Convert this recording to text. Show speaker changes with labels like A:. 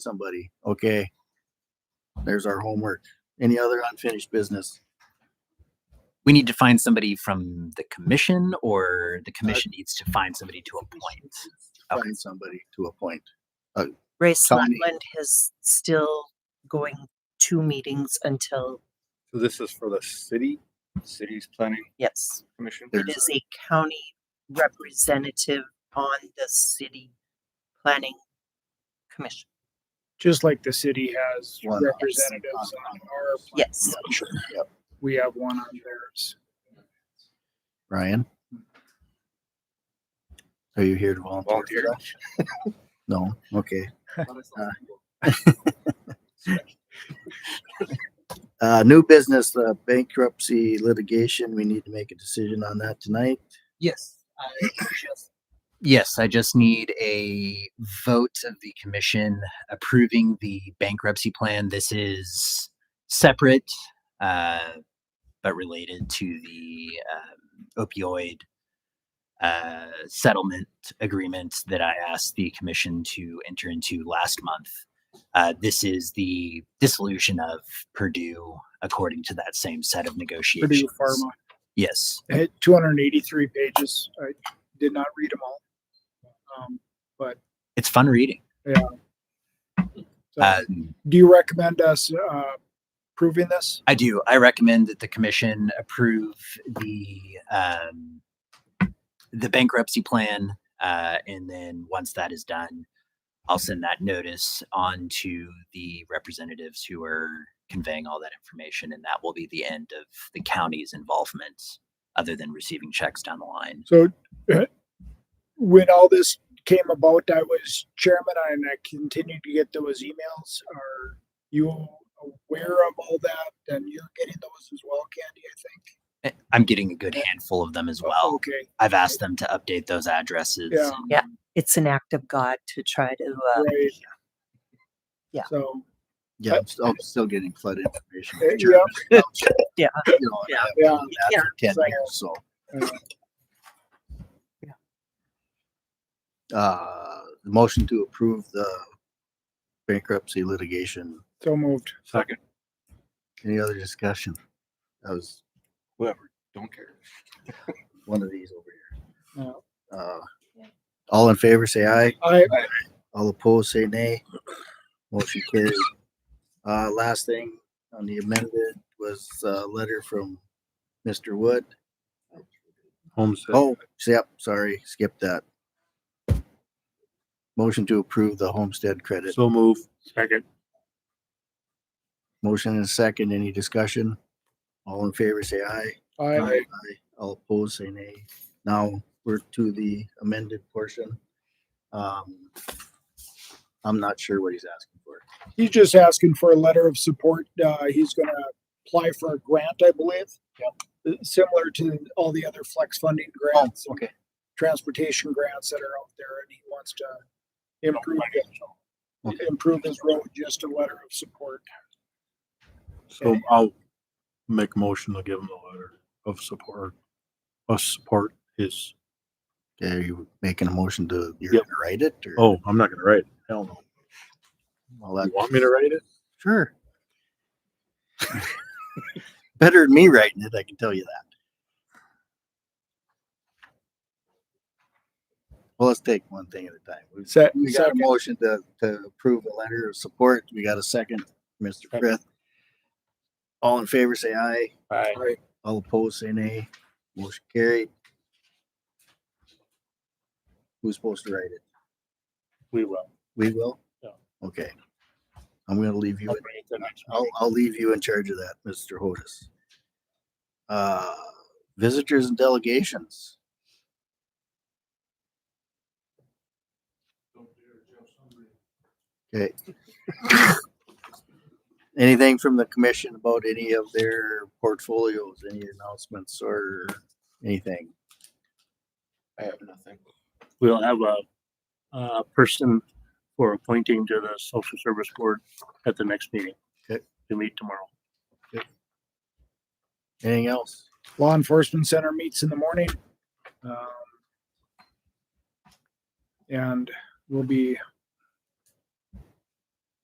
A: somebody. Okay. There's our homework. Any other unfinished business?
B: We need to find somebody from the commission or the commission needs to find somebody to appoint. Okay.
A: Find somebody to appoint.
C: Ray
A: Tony.
C: Slatland is still going two meetings until,
D: So this is for the city, city's planning
C: yes,
D: commission.
C: it is a county representative on the city planning commission.
E: just like the city has
A: One.
E: representatives on our,
C: Yes,
A: Yep.
E: we have one on theirs.
A: Ryan? Are you here to volunteer?
D: Volunteer.
A: No, okay. Uh, new business, the bankruptcy litigation, we need to make a decision on that tonight.
B: Yes. Yes, I just need a vote of the commission approving the bankruptcy plan. This is separate, uh, but related to the um, opioid uh, settlement agreement that I asked the commission to enter into last month. Uh, this is the dissolution of Purdue according to that same set of negotiations.
E: Purdue Pharma,
B: Yes.
E: It had two hundred and eighty-three pages. I did not read them all. Um,
B: It's fun reading.
E: so
B: Uh,
E: do you recommend us, uh, proving this?
B: I do. I recommend that the commission approve the um, the bankruptcy plan, uh, and then once that is done, I'll send that notice on to the representatives who are conveying all that information, and that will be the end of the county's involvement, other than receiving checks down the line.
E: So uh, when all this came about, I was chairman and I continued to get those emails. Are you aware of all that? And you're getting those as well, Candy, I think.
B: Eh, I'm getting a good handful of them as well.
E: Oh, Okay,
B: I've asked them to update those addresses.
E: Yeah.
B: and-
C: Yeah. it's an act of God to try to, uh,
E: right.
C: Yeah.
E: So.
A: Yeah, I'm still, I'm still getting flooded information.
E: Uh,
A: with German stuff,
C: Yeah.
A: you know, and
C: Yeah.
A: I've
E: Yeah.
A: been doing that for 10 years, So. Uh, the motion to approve the bankruptcy litigation.
E: So moved.
D: Second,
A: Any other discussion? That was
D: whoever, don't care.
A: one of these over
E: Yeah.
A: here. Uh, all in favor, say aye.
E: I,
A: All opposed, say nay. Motion carries. Uh, last thing on the amended was a letter from Mr. Wood.
D: Homestead.
A: Oh, yep, sorry, skip that. Motion to approve the homestead credit.
D: So move. Second.
A: Motion and second, any discussion? All in favor, say aye.
E: I,
A: Aye. All opposed, say nay. Now, we're to the amended portion. Um, I'm not sure what he's asking for.
E: he's just asking for a letter of support. Uh, he's gonna apply for a grant, I believe. Yep. Similar to all the other flex funding grants.
A: okay.
E: Transportation grants that are out there and he wants to improve, it. improve his road, just a letter of support.
F: So I'll make a motion to give him a letter of support, us support his,
A: Are you making a motion to, you're
F: Yep.
A: gonna write it or?
F: oh, I'm not gonna write it. Hell no.
A: Well, that,
F: You want me to write it?
A: sure. Better than me writing it, I can tell you that. Well, let's take one thing at a time. We've-
E: Se-
A: We got a
E: second,
A: motion to, to approve a letter of support. We got a second, Mr. Frith. All in favor, say aye.
D: Aye.
A: All opposed, say nay. Motion carried. Who's supposed to write it?
F: We will.
A: We will?
F: Yeah.
A: Okay. I'm gonna leave you, in- I'll, I'll leave you in charge of that, Mr. Hodis. Uh, visitors and delegations. Okay. Anything from the commission about any of their portfolios, any announcements or anything?
D: I have nothing.
F: We'll have a, uh person for appointing to the social service board at the next meeting.
A: Okay.
F: To meet tomorrow.
A: Anything else?
E: law enforcement center meets in the morning. Um, And we'll be